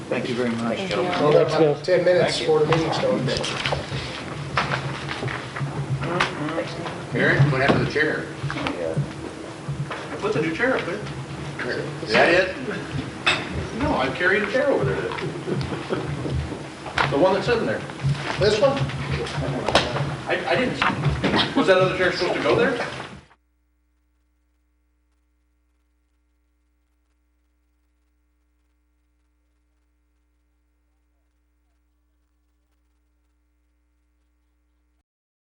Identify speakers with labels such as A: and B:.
A: Thank you very much, gentlemen.
B: Well, that's about 10 minutes
A: Thank you.
B: before the meeting starts.
C: Mary, what happened to the chair?
A: Put the new chair up there.
C: Is that it? No, I carried a chair over there. The one that's sitting there.
B: This one?
C: I, I didn't, was that other chair supposed to go there?